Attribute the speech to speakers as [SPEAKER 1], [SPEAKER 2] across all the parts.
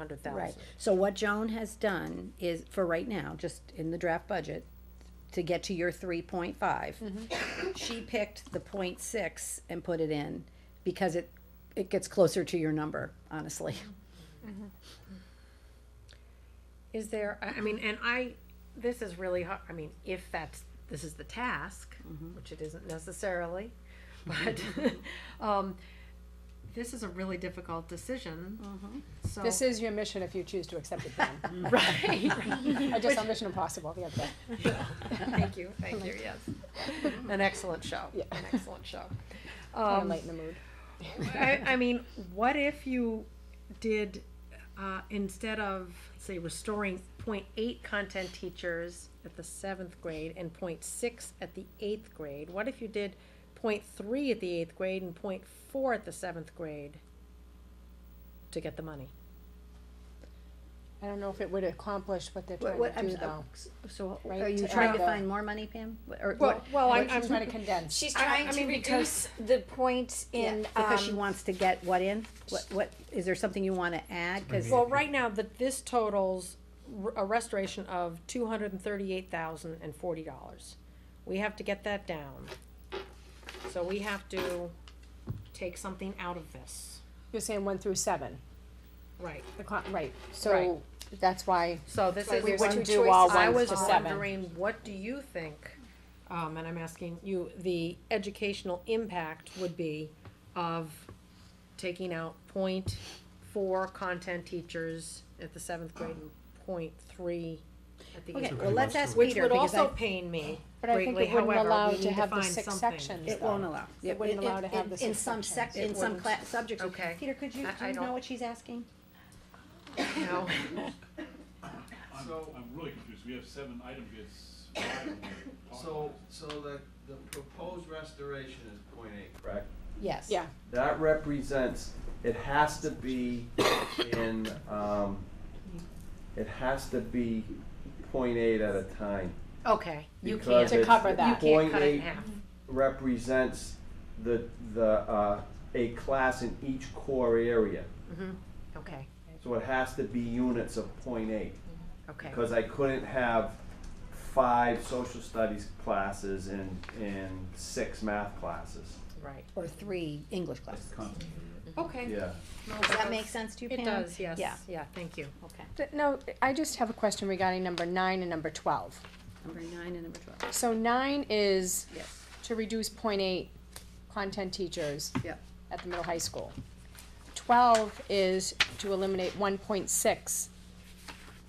[SPEAKER 1] hundred
[SPEAKER 2] Right,
[SPEAKER 1] thousand.
[SPEAKER 2] so what Joan has done is, for right now, just in the draft budget, to get to your three point five, she picked the point six and put it in, because it, it gets closer to your number, honestly.
[SPEAKER 1] Is there, I, I mean, and I, this is really hard, I mean, if that's, this is the task, which it isn't necessarily, but, um, this is a really difficult decision, so.
[SPEAKER 3] This is your mission if you choose to accept it then.
[SPEAKER 1] Oh. Right,
[SPEAKER 3] I just saw Mission Impossible the other day.
[SPEAKER 1] thank you, thank you, yes. An excellent show,
[SPEAKER 3] Yeah.
[SPEAKER 1] an excellent show.
[SPEAKER 3] Kinda
[SPEAKER 1] Um,
[SPEAKER 3] lighten the mood.
[SPEAKER 1] I, I mean, what if you did, uh, instead of, say, restoring point eight content teachers at the seventh grade and point six at the eighth grade, what if you did point three at the eighth grade and point four at the seventh grade to get the money?
[SPEAKER 3] I don't know if it would accomplish what they're
[SPEAKER 2] What-
[SPEAKER 3] trying
[SPEAKER 2] what-
[SPEAKER 3] to
[SPEAKER 2] I'm
[SPEAKER 3] do
[SPEAKER 2] s- uh,
[SPEAKER 3] though.
[SPEAKER 1] So,
[SPEAKER 3] right?
[SPEAKER 2] Are you
[SPEAKER 3] add
[SPEAKER 2] trying to
[SPEAKER 3] the-
[SPEAKER 2] find more money, Pam? Or
[SPEAKER 1] well,
[SPEAKER 2] what?
[SPEAKER 1] well, I-
[SPEAKER 3] what
[SPEAKER 1] I'm,
[SPEAKER 3] She's trying to condense.
[SPEAKER 4] She's
[SPEAKER 1] I- I
[SPEAKER 4] trying to
[SPEAKER 1] mean,
[SPEAKER 4] reduce the points in,
[SPEAKER 2] Because she
[SPEAKER 4] um,
[SPEAKER 2] wants to get what in? What, what, is there something you wanna add? 'Cause-
[SPEAKER 1] well, right now, that this totals r- a restoration of two hundred and thirty-eight thousand and forty dollars. We have to get that down. So we have to take something out of this,
[SPEAKER 3] You're saying one through seven,
[SPEAKER 1] right?
[SPEAKER 3] the con, right, so that's why,
[SPEAKER 1] So this
[SPEAKER 4] Like
[SPEAKER 1] is.
[SPEAKER 3] we
[SPEAKER 4] there's two
[SPEAKER 3] wouldn't do all
[SPEAKER 4] choices.
[SPEAKER 1] I
[SPEAKER 3] ones
[SPEAKER 1] was
[SPEAKER 3] to seven.
[SPEAKER 1] wondering, what do you think, um, and I'm asking you, the educational impact would be of taking out point four content teachers at the seventh grade and point three at the
[SPEAKER 2] Okay,
[SPEAKER 1] eighth
[SPEAKER 2] well,
[SPEAKER 1] grade?
[SPEAKER 2] let's ask
[SPEAKER 1] Which
[SPEAKER 2] Peter,
[SPEAKER 1] would
[SPEAKER 2] because
[SPEAKER 1] also
[SPEAKER 2] I,
[SPEAKER 1] pain me
[SPEAKER 3] But I think it
[SPEAKER 1] greatly,
[SPEAKER 3] wouldn't
[SPEAKER 1] however,
[SPEAKER 3] allow
[SPEAKER 1] we
[SPEAKER 3] to
[SPEAKER 1] need to
[SPEAKER 3] have the
[SPEAKER 1] find
[SPEAKER 3] six
[SPEAKER 1] something.
[SPEAKER 3] sections.
[SPEAKER 2] it won't allow.
[SPEAKER 3] It wouldn't allow to have the
[SPEAKER 2] In
[SPEAKER 3] six
[SPEAKER 2] some sec,
[SPEAKER 3] sections.
[SPEAKER 2] in
[SPEAKER 1] It
[SPEAKER 2] some
[SPEAKER 1] wouldn't.
[SPEAKER 2] class, subjects.
[SPEAKER 1] Okay.
[SPEAKER 2] Peter, could you,
[SPEAKER 1] I-
[SPEAKER 2] do
[SPEAKER 1] I
[SPEAKER 2] you
[SPEAKER 1] don't-
[SPEAKER 2] know what she's asking?
[SPEAKER 1] No,
[SPEAKER 5] I'm, I'm really confused, we have seven item bids.
[SPEAKER 6] So, so the, the proposed restoration is point eight, correct?
[SPEAKER 2] Yes.
[SPEAKER 3] yeah,
[SPEAKER 6] That represents, it has to be in, um, it has to be point eight at a time.
[SPEAKER 1] okay, you
[SPEAKER 6] because
[SPEAKER 1] can't,
[SPEAKER 3] To
[SPEAKER 1] you
[SPEAKER 6] it's-
[SPEAKER 3] cover that.
[SPEAKER 1] can't
[SPEAKER 6] point
[SPEAKER 1] cut it in
[SPEAKER 6] eight
[SPEAKER 1] half.
[SPEAKER 6] Represents the, the, uh, a class in each core area.
[SPEAKER 1] Mm-hmm. Okay,
[SPEAKER 6] So it has to be units of point eight.
[SPEAKER 1] okay,
[SPEAKER 6] because I couldn't have five social studies classes and, and six math classes.
[SPEAKER 1] right,
[SPEAKER 2] Or three English classes.
[SPEAKER 1] okay.
[SPEAKER 6] Yeah.
[SPEAKER 2] Does that make sense to you, Pam?
[SPEAKER 1] Mm-hmm. It does, yes,
[SPEAKER 2] Yeah.
[SPEAKER 1] yeah, thank you.
[SPEAKER 2] Okay.
[SPEAKER 3] Th- no, I just have a question regarding number nine and number twelve.
[SPEAKER 2] Number nine and number twelve.
[SPEAKER 3] So nine is
[SPEAKER 2] Yes.
[SPEAKER 3] to reduce point eight content teachers
[SPEAKER 2] Yep.
[SPEAKER 3] at the middle high school. Twelve is to eliminate one point six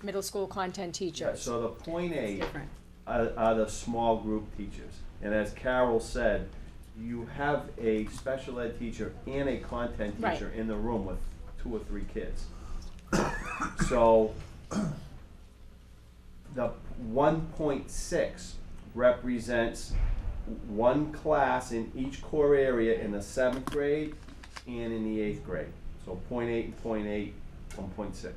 [SPEAKER 3] middle school content
[SPEAKER 6] Yeah,
[SPEAKER 3] teachers.
[SPEAKER 6] so the point eight
[SPEAKER 2] Different.
[SPEAKER 6] are, are the small group teachers. And as Carol said, you have a special ed teacher and a content
[SPEAKER 3] Right.
[SPEAKER 6] teacher in the room with two or three kids. So the one point six represents one class in each core area in the seventh grade and in the eighth grade. So point eight and point eight, one point six.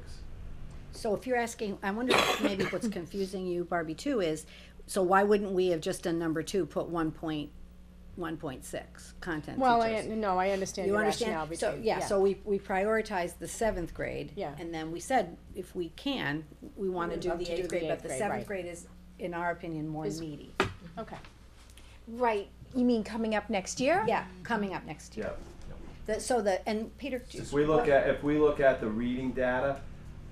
[SPEAKER 2] So if you're asking, I wonder if maybe what's confusing you, Barbie, too, is, so why wouldn't we have just done number two, put one point, one point six content
[SPEAKER 3] Well, I,
[SPEAKER 2] teachers?
[SPEAKER 3] no, I understand
[SPEAKER 2] You
[SPEAKER 3] your rationale
[SPEAKER 2] understand?
[SPEAKER 3] between.
[SPEAKER 2] So, yeah, so we, we prioritized the seventh grade.
[SPEAKER 3] Yeah.
[SPEAKER 2] And then we said, if we can, we wanna
[SPEAKER 3] We'd
[SPEAKER 2] do
[SPEAKER 3] love
[SPEAKER 2] the
[SPEAKER 3] to do
[SPEAKER 2] eighth
[SPEAKER 3] the
[SPEAKER 2] grade, but
[SPEAKER 3] eighth
[SPEAKER 2] the
[SPEAKER 3] grade,
[SPEAKER 2] seventh
[SPEAKER 3] right.
[SPEAKER 2] grade is, in our opinion, more
[SPEAKER 3] Is-
[SPEAKER 2] meaty.
[SPEAKER 3] Okay,
[SPEAKER 4] right, you mean coming up next year?
[SPEAKER 2] Yeah, coming up next year.
[SPEAKER 6] Yeah.
[SPEAKER 2] The- So the, and Peter.
[SPEAKER 6] If we look at, if we look at the reading data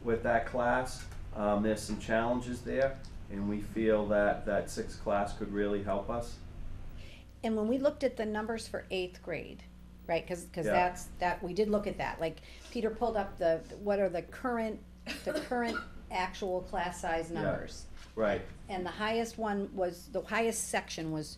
[SPEAKER 6] with that class, um, there's some challenges there, and we feel that, that sixth class could really help us.
[SPEAKER 2] And when we looked at the numbers for eighth grade, right, cause, 'cause
[SPEAKER 6] Yeah.
[SPEAKER 2] that's, that, we did look at that, like, Peter pulled up the, what are the current, the current actual class size
[SPEAKER 6] Yeah.
[SPEAKER 2] numbers.
[SPEAKER 6] Right,
[SPEAKER 2] And the highest one was, the highest section was,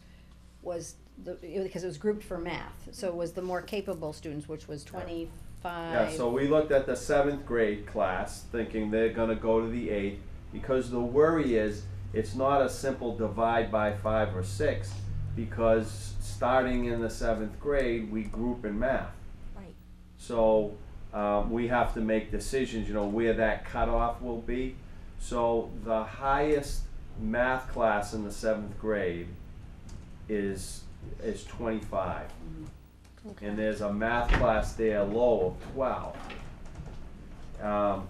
[SPEAKER 2] was the, it- because it was grouped for math, so it was the more capable students, which was
[SPEAKER 6] yeah,
[SPEAKER 2] twenty-five.
[SPEAKER 6] so we looked at the seventh grade class, thinking they're gonna go to the eighth, because the worry is, it's not a simple divide by five or six, because starting in the seventh grade, we group in math.
[SPEAKER 4] Right.
[SPEAKER 6] So um, we have to make decisions, you know, where that cutoff will be. So the highest math class in the seventh grade is is 25, and there's a math class there low of 12. Um,